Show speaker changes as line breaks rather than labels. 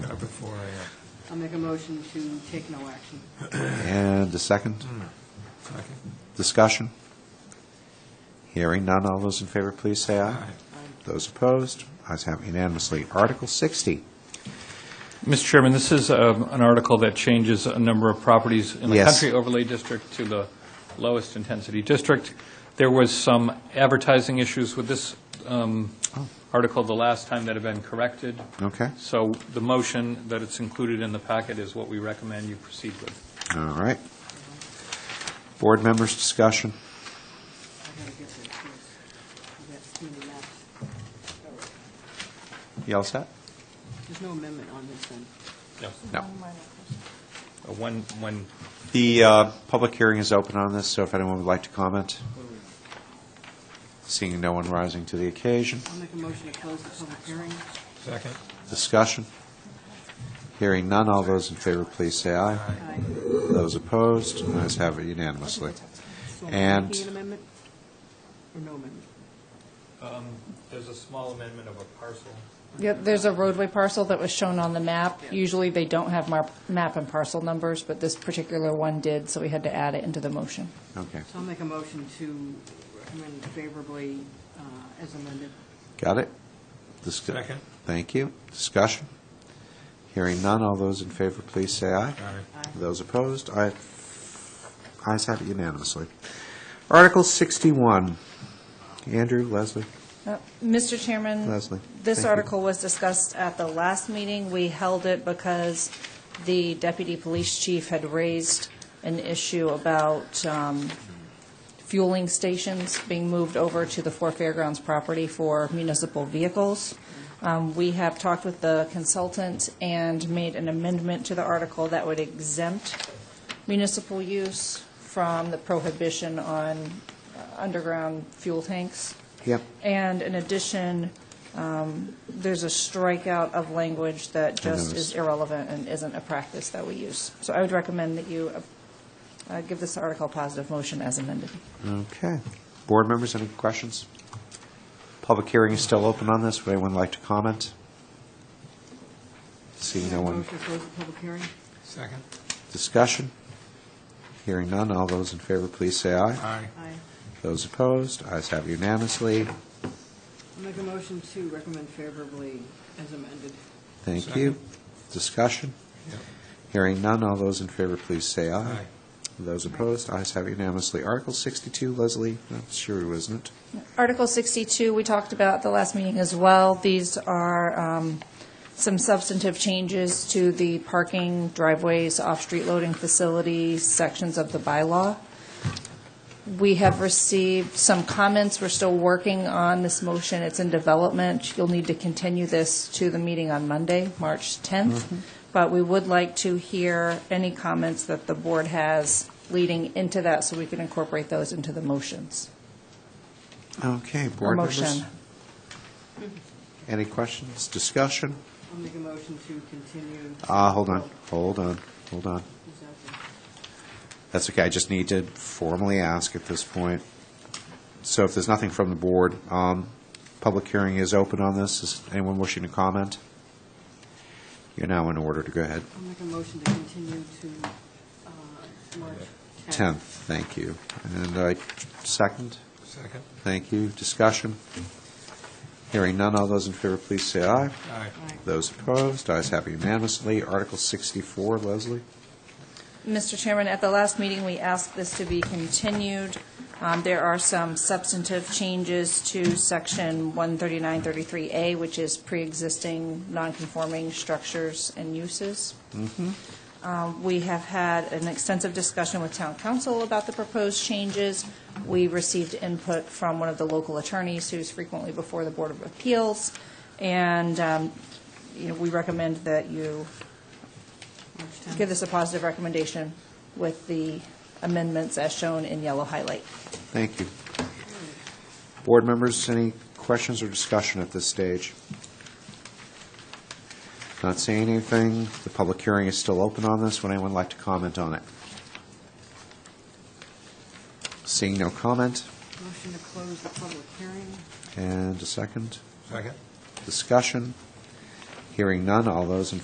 I'll make a motion to take no action.
And a second? Discussion? Hearing none, all those in favor, please say aye. Those opposed, ayes have unanimously. Article 60,
Mr. Chairman, this is um, an article that changes a number of properties in the
Yes.
country overlay district to the lowest intensity district. There was some advertising issues with this um, article the last time that have been corrected.
okay?
So the motion that it's included in the packet is what we recommend you proceed with.
All right. Board members' discussion?
I gotta get this, yes. I got too many maps. All right.
You all set?
There's no amendment on this then.
No.
Uh, When, when,
The uh, public hearing is open on this, so if anyone would like to comment? Seeing no one rising to the occasion.
I'll make a motion to close the public hearing.
Second.
Discussion? Hearing none, all those in favor, please say aye.
Aye.
Those opposed, ayes have it unanimously.
So
And-
making an amendment? Or no amendment?
there's a small amendment of a parcel.
Yeah, there's a roadway parcel that was shown on the map. Usually, they don't have mar- map and parcel numbers, but this particular one did, so we had to add it into the motion.
Okay,
So I'll make a motion to recommend favorably uh, as amended.
got it? Discu-
Second.
Thank you. Discussion? Hearing none, all those in favor, please say aye.
Aye.
Those opposed, aye- ayes have it unanimously. Article 61, Andrew, Leslie,
Uh, Mr. Chairman?
Leslie, thank
Uh, This
you.
article was discussed at the last meeting. We held it because the deputy police chief had raised an issue about um, fueling stations being moved over to the Four Fairgrounds property for municipal vehicles. Um, We have talked with the consultant and made an amendment to the article that would exempt municipal use from the prohibition on uh, underground fuel tanks.
Yep.
And in addition, um, there's a strikeout of language that just
noticed.
is irrelevant and isn't a practice that we use. So I would recommend that you uh, uh, give this article a positive motion as amended.
Okay. Board members, any questions? Public hearing is still open on this. Would anyone like to comment? Seeing no one.
Motion to close the public hearing?
Second.
Discussion? Hearing none, all those in favor, please say aye.
Aye.
Aye.
Those opposed, ayes have unanimously.
I'll make a motion to recommend favorably as amended.
Thank you. Discussion?
Yep.
Hearing none, all those in favor, please say aye.
Aye.
Those opposed, ayes have unanimously. Article 62, Leslie, that's sure, isn't it?
Article 62, we talked about at the last meeting as well. These are um, some substantive changes to the parking, driveways, off-street loading facilities, sections of the bylaw. We have received some comments. We're still working on this motion. It's in development. You'll need to continue this to the meeting on Monday, March
Mm-hmm.
10th. But we would like to hear any comments that the board has leading into that so we can incorporate those into the motions.
Okay,
Or
board members?
motion.
Any questions, discussion?
I'll make a motion to continue.
Ah, hold on,
Oh,
hold on, hold on.
is that
That's okay, I just need to formally ask at this point. So if there's nothing from the board, um, public hearing is open on this. Is anyone wishing to comment? You're now in order to go ahead.
the- I'll make a motion to continue to uh, March 10th.
10th, thank you. And I, second,
Second.
thank you. Discussion? Hearing none, all those in favor, please say aye.
Aye.
Aye.
Those opposed, ayes have unanimously. Article 64, Leslie?
Mr. Chairman, at the last meeting, we asked this to be continued. Um, There are some substantive changes to Section 13933A, which is pre-existing non-conforming structures and uses. Um, We have had an extensive discussion with town council about the proposed changes. We received input from one of the local attorneys who's frequently before the Board of Appeals, and, um, you know, we recommend that you
March 10th.
give this a positive recommendation with the amendments as shown in yellow highlight.
Thank you. Board members, any questions or discussion at this stage? Not seeing anything. The public hearing is still open on this. Would anyone like to comment on it? Seeing no comment,
Motion to close the public hearing.
and a second.
Second.
Discussion. Hearing none. All those in